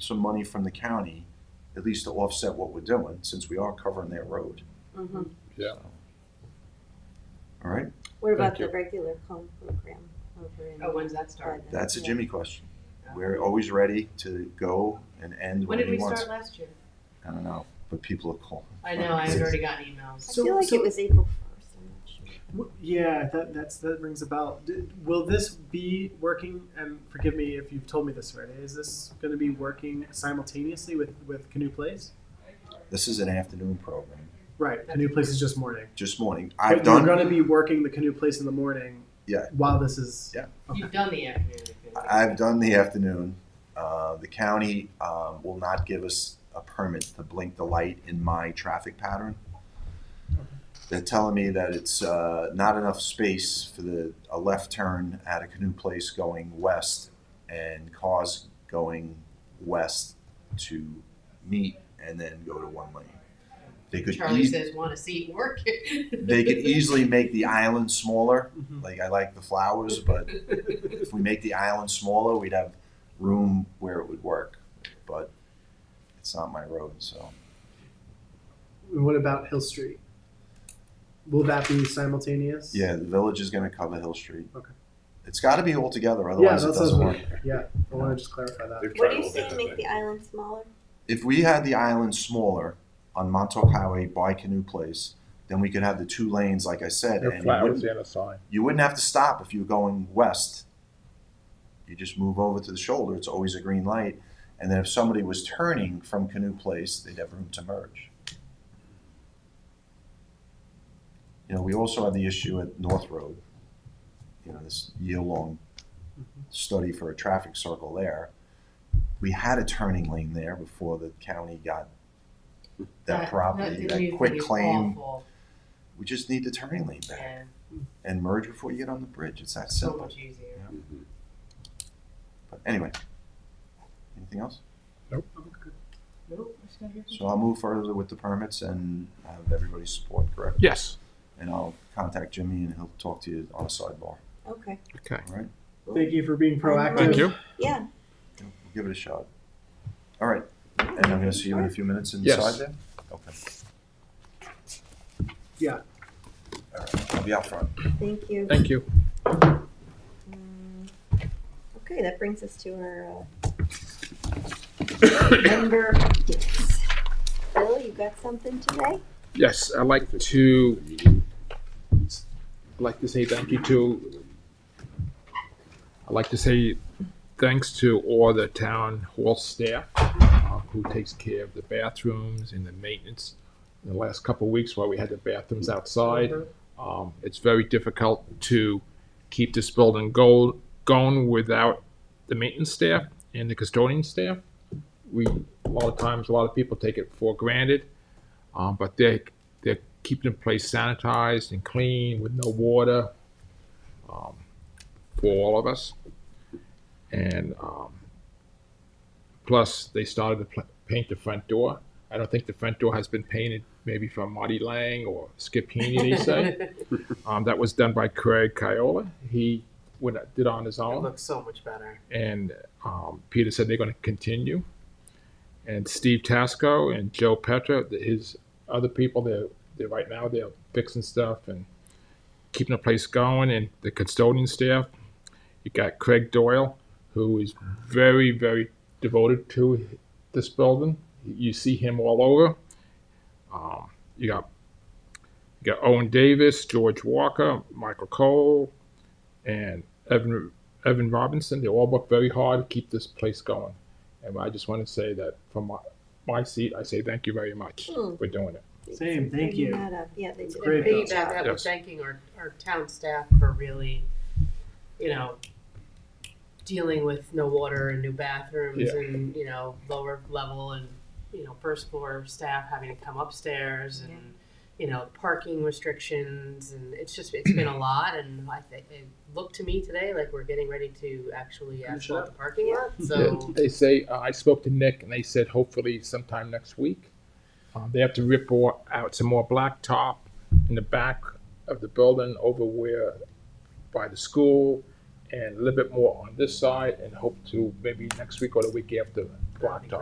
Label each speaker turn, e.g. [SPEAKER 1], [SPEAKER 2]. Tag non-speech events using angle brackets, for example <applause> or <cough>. [SPEAKER 1] some money from the county, at least to offset what we're doing, since we are covering their road.
[SPEAKER 2] Mm-hmm.
[SPEAKER 3] Mhm.
[SPEAKER 1] All right,
[SPEAKER 2] What about
[SPEAKER 4] Thank
[SPEAKER 2] the
[SPEAKER 4] you.
[SPEAKER 2] regular comb program over in?
[SPEAKER 3] Oh, when does that start?
[SPEAKER 2] London?
[SPEAKER 1] that's a
[SPEAKER 2] Yeah.
[SPEAKER 1] Jimmy question. We're always ready to go and end when
[SPEAKER 3] When did
[SPEAKER 1] he
[SPEAKER 3] we
[SPEAKER 1] wants.
[SPEAKER 3] start last year?
[SPEAKER 1] I don't know, but people are calling.
[SPEAKER 3] I know, I've already gotten emails.
[SPEAKER 2] I
[SPEAKER 5] So-
[SPEAKER 2] feel like
[SPEAKER 5] so-
[SPEAKER 2] it was April first, I'm not sure.
[SPEAKER 5] W- Yeah, that that's that rings a bell. D- will this be working? And forgive me if you've told me this already. Is this going to be working simultaneously with with Canoe Place?
[SPEAKER 1] This is an afternoon program,
[SPEAKER 5] Right, Canoe Place is just morning.
[SPEAKER 1] just morning. I've
[SPEAKER 5] but
[SPEAKER 1] done.
[SPEAKER 5] You're going to be working the Canoe Place in the morning.
[SPEAKER 1] Yeah.
[SPEAKER 5] While this is.
[SPEAKER 1] Yeah.
[SPEAKER 5] Okay.
[SPEAKER 3] You've done the afternoon. activity.
[SPEAKER 1] I've done the afternoon. Uh, The county um, will not give us a permit to blink the light in my traffic pattern. They're telling me that it's uh, not enough space for the, a left turn at a canoe place going west and cars going west to meet and then go to one lane. They could,
[SPEAKER 3] Charlie
[SPEAKER 1] ea-
[SPEAKER 3] says, want to see work.
[SPEAKER 1] they could easily make the island smaller
[SPEAKER 5] Mhm.
[SPEAKER 1] like I like the flowers, but if we make the island smaller, we'd have room where it would work. But it's not my road, so
[SPEAKER 5] And what about Hill Street? Will that be simultaneous?
[SPEAKER 1] yeah, the village is going to cover Hill Street.
[SPEAKER 5] Okay.
[SPEAKER 1] It's got to be all together,
[SPEAKER 5] Yeah,
[SPEAKER 1] otherwise
[SPEAKER 5] that
[SPEAKER 1] it
[SPEAKER 5] sounds
[SPEAKER 1] doesn't work.
[SPEAKER 5] weird. Yeah, I want to just clarify that.
[SPEAKER 4] They've
[SPEAKER 2] What
[SPEAKER 4] tried
[SPEAKER 2] do you
[SPEAKER 4] all
[SPEAKER 2] say,
[SPEAKER 4] kinds of
[SPEAKER 2] make the
[SPEAKER 4] things.
[SPEAKER 2] island smaller?
[SPEAKER 1] If we had the island smaller on Montauk Highway by Canoe Place, then we could have the two lanes, like I said,
[SPEAKER 4] There are
[SPEAKER 1] and you
[SPEAKER 4] flowers
[SPEAKER 1] wouldn't,
[SPEAKER 4] and a sign.
[SPEAKER 1] you wouldn't have to stop if you were going west. You just move over to the shoulder. It's always a green light. And then if somebody was turning from Canoe Place, they'd have room to merge. You know, we also had the issue at North Road, you know, this year-long Mm-hmm. study for a traffic circle there. We had a turning lane there before the county got
[SPEAKER 3] <laughs>
[SPEAKER 1] that property, that
[SPEAKER 3] new
[SPEAKER 1] quick
[SPEAKER 3] thing is
[SPEAKER 1] claim.
[SPEAKER 3] awful.
[SPEAKER 1] We just need the turning lane back
[SPEAKER 3] Yeah,
[SPEAKER 1] and merge before you get on the bridge. It's that
[SPEAKER 3] so
[SPEAKER 1] simple.
[SPEAKER 3] much easier.
[SPEAKER 1] But anyway, anything else?
[SPEAKER 3] Nope, we're just gonna hear from-
[SPEAKER 1] So I'll move further with the permits and have everybody's support, correct?
[SPEAKER 6] Yes.
[SPEAKER 1] And I'll contact Jimmy and he'll talk to you on a sidebar, all
[SPEAKER 2] Okay,
[SPEAKER 6] Okay.
[SPEAKER 1] right?
[SPEAKER 5] Thank you for being proactive.
[SPEAKER 6] Thank you.
[SPEAKER 2] yeah,
[SPEAKER 1] We'll give it a shot. All right, and I'm gonna see you in a few minutes inside
[SPEAKER 6] Yes.
[SPEAKER 1] there? Okay,
[SPEAKER 5] Yeah.
[SPEAKER 1] all right, I'll be out front.
[SPEAKER 2] thank you.
[SPEAKER 6] Thank you.
[SPEAKER 2] Mm, Okay, that brings us to
[SPEAKER 1] <coughs>
[SPEAKER 2] our uh, member gifts. Bill, you got something today?
[SPEAKER 6] Yes, I'd like to I'd like to say thank you to I'd like to say thanks to all the town hall staff uh, who takes care of the bathrooms and the maintenance. In the last couple of weeks while we had the bathrooms outside, um, it's very difficult to keep this building go, going without the maintenance staff and the custodian staff. We, a lot of times, a lot of people take it for granted, um, but they, they're keeping the place sanitized and clean with no water, um, for all of us. And, um, plus, they started to pl- paint the front door. I don't think the front door has been painted, maybe from Marty Lang or Skip Heaney, they say. Um, that was done by Craig Kiola. He went, did on his
[SPEAKER 5] It
[SPEAKER 6] own
[SPEAKER 5] looks so much better.
[SPEAKER 6] and um, Peter said they're going to continue. And Steve Tasco and Joe Petra, th- his other people, they're, they're right now they're fixing stuff and keeping the place going. And the custodian staff, you got Craig Doyle, who is very very devoted to this building. You see him all over. Um, you got you got Owen Davis, George Walker, Michael Cole, and Evan Evan Robinson, they all work very hard to keep this place going. And I just want to say that from my, my seat, I say thank you very much
[SPEAKER 2] Hmm.
[SPEAKER 6] for doing it.
[SPEAKER 5] Same, thank
[SPEAKER 2] Bringing
[SPEAKER 5] you.
[SPEAKER 2] that up. Yeah, they did. a
[SPEAKER 5] great,
[SPEAKER 3] And
[SPEAKER 2] great
[SPEAKER 3] piggyback
[SPEAKER 2] job.
[SPEAKER 3] that, we're
[SPEAKER 6] Yes.
[SPEAKER 3] thanking our, our town staff for really, you know, dealing with no water and new bathrooms
[SPEAKER 6] Yeah.
[SPEAKER 3] and, you know, lower level and, you know, first floor staff having to come upstairs and, you know, parking restrictions and it's just, it's
[SPEAKER 6] <clears throat>
[SPEAKER 3] been a lot and I think, it looked to me today like we're getting ready to actually
[SPEAKER 5] Finish
[SPEAKER 3] actually
[SPEAKER 5] up.
[SPEAKER 3] the parking lot, so.
[SPEAKER 6] They say, uh, I spoke to Nick and they said hopefully sometime next week. Um, they have to rip or, out some more blacktop in the back of the building over where by the school and a little bit more on this side and hope to maybe next week or the week after
[SPEAKER 3] That'd be
[SPEAKER 6] blacktop.